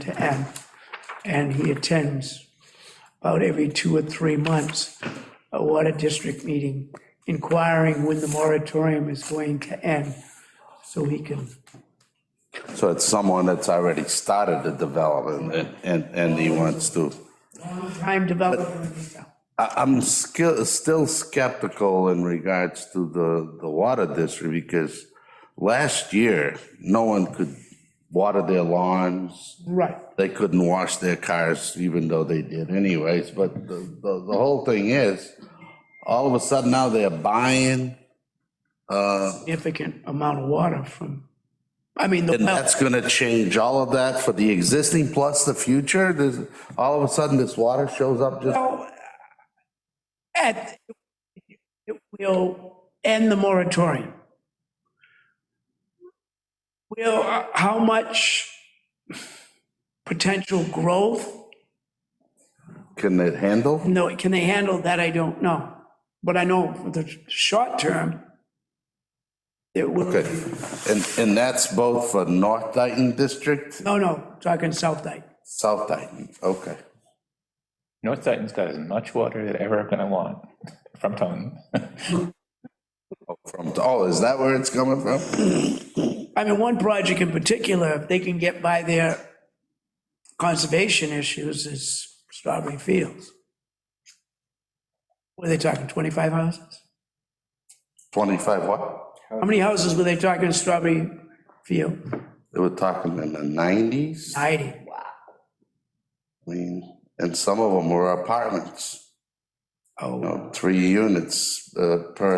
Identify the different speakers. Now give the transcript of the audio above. Speaker 1: to M, and he attends about every two or three months a water district meeting inquiring when the moratorium is going to end, so he can,
Speaker 2: So it's someone that's already started the development and- and, and he wants to.
Speaker 1: prime developer in this town.
Speaker 2: I- I'm skill- still skeptical in regards to the, the water district because last year, no one could water their lawns.
Speaker 1: Right,
Speaker 2: They couldn't wash their cars, even though they did anyways. But the, the, the whole thing is, all of a sudden now they're buying, uh,
Speaker 1: significant amount of water from, I mean, the
Speaker 2: and
Speaker 1: well,
Speaker 2: that's gonna change all of that for the existing plus the future. There's, all of a sudden this water shows up just
Speaker 1: So, at, it will end the moratorium. Will, uh, how much potential growth,
Speaker 2: Can it handle?
Speaker 1: no, can they handle that, I don't know. But I know for the short term, it will,
Speaker 2: Okay, and, and that's both for North Dayton District,
Speaker 1: no, no, talking South Dyke.
Speaker 2: South Dayton, okay.
Speaker 3: North Dayton's got as much water as they're ever gonna want from Taunton.
Speaker 2: From, oh, is that where it's coming from?
Speaker 1: I mean, one project in particular, if they can get by their conservation issues, is Strawberry Fields. Were they talking 25 houses?
Speaker 2: 25 what?
Speaker 1: How many houses were they talking in Strawberry Field?
Speaker 2: They were talking in the 90s, I
Speaker 1: 90.
Speaker 2: mean, and some of them were apartments, you
Speaker 1: Oh.
Speaker 2: know, three units uh, per